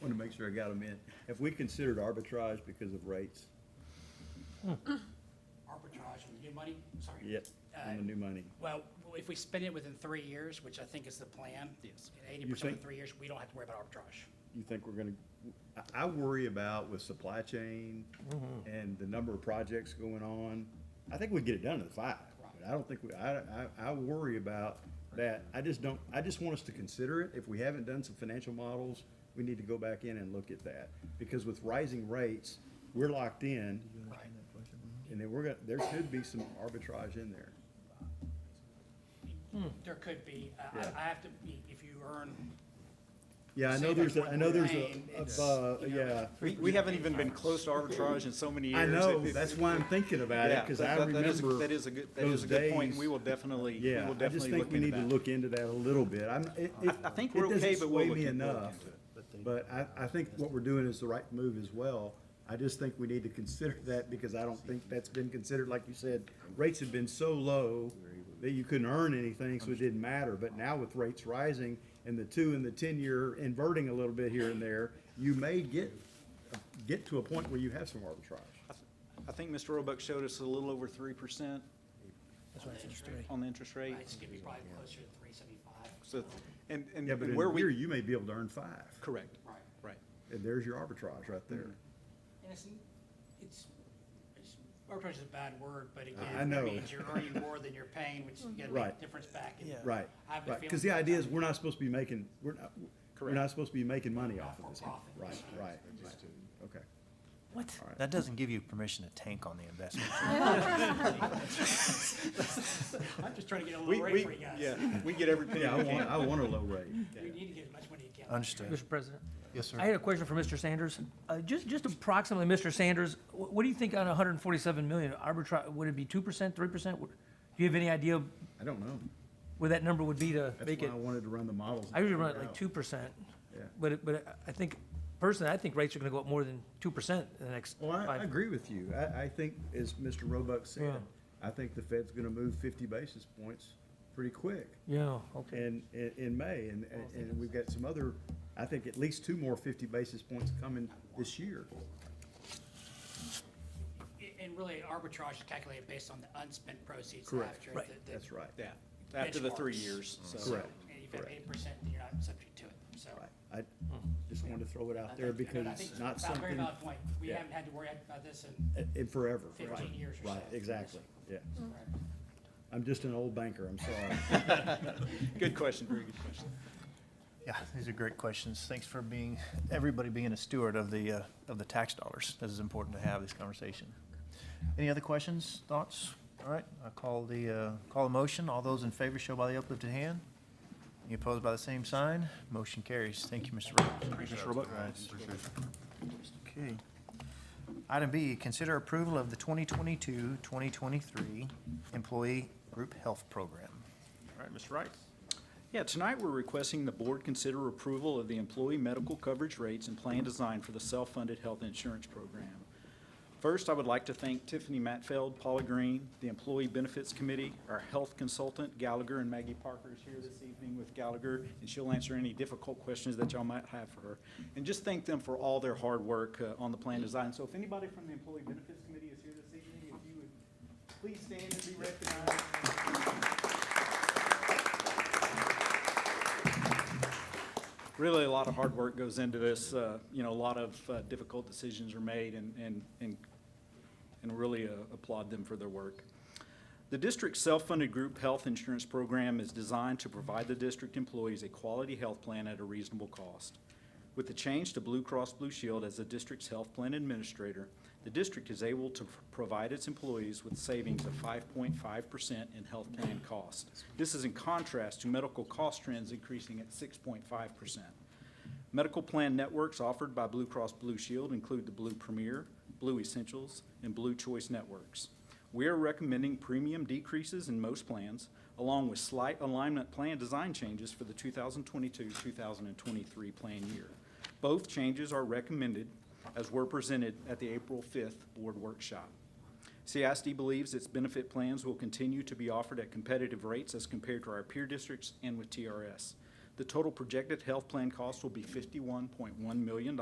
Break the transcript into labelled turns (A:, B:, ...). A: want to make sure I got them in. Have we considered arbitrage because of rates?
B: Arbitrage on the new money, sorry.
A: Yet, on the new money?
B: Well, if we spend it within three years, which I think is the plan. Yes. Eighty
A: You
B: percent in
A: think-
B: three years, we don't have to worry about arbitrage.
A: You think we're gonna, I, I worry about with supply chain and the number of projects going on. I think we'd get it done in five, but I don't think we, I, I, I worry about that. I just don't, I just want us to consider it. If we haven't done some financial models, we need to go back in and look at that. Because with rising rates, we're locked in,
B: Right.
A: and then we're gonna, there could be some arbitrage in there.
B: There could be, uh, I- I,
A: Yeah.
B: I have to, be- if you earn,
A: Yeah, I know
B: Say
A: there's, a
B: that's
A: I know there's
B: what we're
A: a, uh,
B: saying,
A: yeah.
C: We, we haven't even been close to arbitrage in so many years.
A: I know,
C: It- it-
A: that's why I'm thinking about it,
C: yeah,
A: because
C: that-
A: I
C: that- that is a-
A: remember.
C: That is a good, that is
A: those
C: a good point.
A: days.
C: We will definitely, we
A: Yeah,
C: will
A: I just
C: definitely
A: think
C: look
A: we need to
C: into that.
A: look into that a little bit. I'm, it, it.
C: I think
A: it
C: we're okay,
A: doesn't
C: but we'll
A: sway
C: look
A: me
C: in- we'll look
A: enough.
C: into it,
A: But I, I think what we're doing is the right move as well. I just think we need to consider that because I don't think that's been considered, like you said, rates have been so low that you couldn't earn anything, so it didn't matter. But now with rates rising and the two and the ten-year inverting a little bit here and there, you may get, get to a point where you have some arbitrage.
C: I th- I think Mr. Roebuck showed us a little over three percent on the interest rate.
B: it's gonna be probably closer to three seventy-five.
C: So, and,
A: Yeah, but
C: and
A: in
C: where
A: here,
C: we,
A: you may be able to earn five,
C: correct,
B: Right.
C: right.
A: and there's your arbitrage right there.
B: And it's, it's, it's, arbitrage is a bad word, but
A: I
B: again,
A: know.
B: that means you're earning more than you're paying, which you gotta make
A: Right.
B: a difference back. in-
A: Right,
B: I have a
A: right,
B: feeling
A: because the
B: that-
A: idea is we're not supposed to be making, we're not, we're not supposed to be making money off of
B: Not
A: this.
B: for profit.
A: Right, right, right, okay.
D: What? That doesn't give you permission to tank on the investment.
B: I'm just trying to get a
C: We,
B: little rate
C: we,
B: for you guys.
C: yeah, we get every penny
A: Yeah, I
C: we
A: want,
C: can.
A: I want a low rate.
B: We need to get as much money as you can.
D: Understood.
E: Mr. President,
D: Yes,
E: I had a question for Mr. Sanders. Uh, Just, just approximately, Mr. Sanders, wh- what do you think on 147 million arbitrage, would it be 2%, 3%? Would- Do you have any idea
A: I don't know.
E: where that number would be to
A: That's
E: make
A: why
E: it?
A: I wanted to run the models. and
E: I usually
A: figure
E: run it like
A: out.
E: 2%,
A: Yeah.
E: but, it- but I- I think, personally, I think rates are going to go up more than 2% in the next
A: Well, I, I
E: five.
A: agree with you. I, I think, as Mr. Roebuck said,
E: Yeah.
A: I think the Fed's gonna move fifty basis points pretty quick.
E: Yeah, okay.
A: in, in, in May, and, and- and we've got some other, I think at least two more fifty basis points coming this year.
B: A- And really, arbitrage is calculated based on the unspent proceeds
A: Correct.
B: after.
E: Right.
B: the- the-
A: That's right.
C: Yeah, after the three
B: Benchmarks.
C: years, so.
A: Correct.
B: And if you have
A: Correct.
B: eight percent, then you're not subject to it, so.
A: Right. I just wanted to throw it
B: I
A: out there
B: think-
A: because
B: Uh, I
A: it's
B: think
A: not
B: a Very
A: something
B: valid point. We
A: Yeah.
B: haven't had to worry about this in,
A: uh, in forever. right?
B: 15 years or
A: Right,
B: so.
A: exactly, yeah.
B: right.
A: I'm just an old banker, I'm sorry.
C: Good question, very good question.
D: Yeah, these are great questions. Thanks for being, everybody being a steward of the, uh, of the tax dollars. This is important to have this conversation. Any other questions, thoughts? All right, I call the, uh, call a motion. All those in favor show by the uplifted hand. Any opposed by the same sign? Motion carries. Thank you, Mr. Roebuck. Mr. Roebuck. Okay. Item B, consider approval of the 2022-2023 Employee Group Health Program.
C: All right, Mr. Wright. Yeah, tonight we're requesting the board consider approval of the employee medical coverage rates and plan design for the self-funded health insurance program. First, I would like to thank Tiffany Matfeld, Paula Green, the Employee Benefits Committee, our health consultant Gallagher, and Maggie Parker is here this evening with Gallagher, and she'll answer any difficult questions that y'all might have for her. And just thank them for all their hard work uh, on the plan design. So if anybody from the Employee Benefits Committee is here this evening, if you would please stand and be recognized. really a lot of hard work goes into this. uh, You know, a lot of uh, difficult decisions are made and, and, and and really uh, applaud them for their work. The district's self-funded group health insurance program is designed to provide the district employees a quality health plan at a reasonable cost. With the change to Blue Cross Blue Shield as the district's health plan administrator, the district is able to provide its employees with savings of 5.5% in health plan cost. This is in contrast to medical cost trends increasing at 6.5%. Medical plan networks offered by Blue Cross Blue Shield include the Blue Premier, Blue Essentials, and Blue Choice networks. We are recommending premium decreases in most plans, along with slight alignment plan design changes for the 2022-2023 plan year. Both changes are recommended as were presented at the April 5th board workshop. CISD believes its benefit plans will continue to be offered at competitive rates as compared to our peer districts and with TRS. The total projected health plan cost will be $51.1 million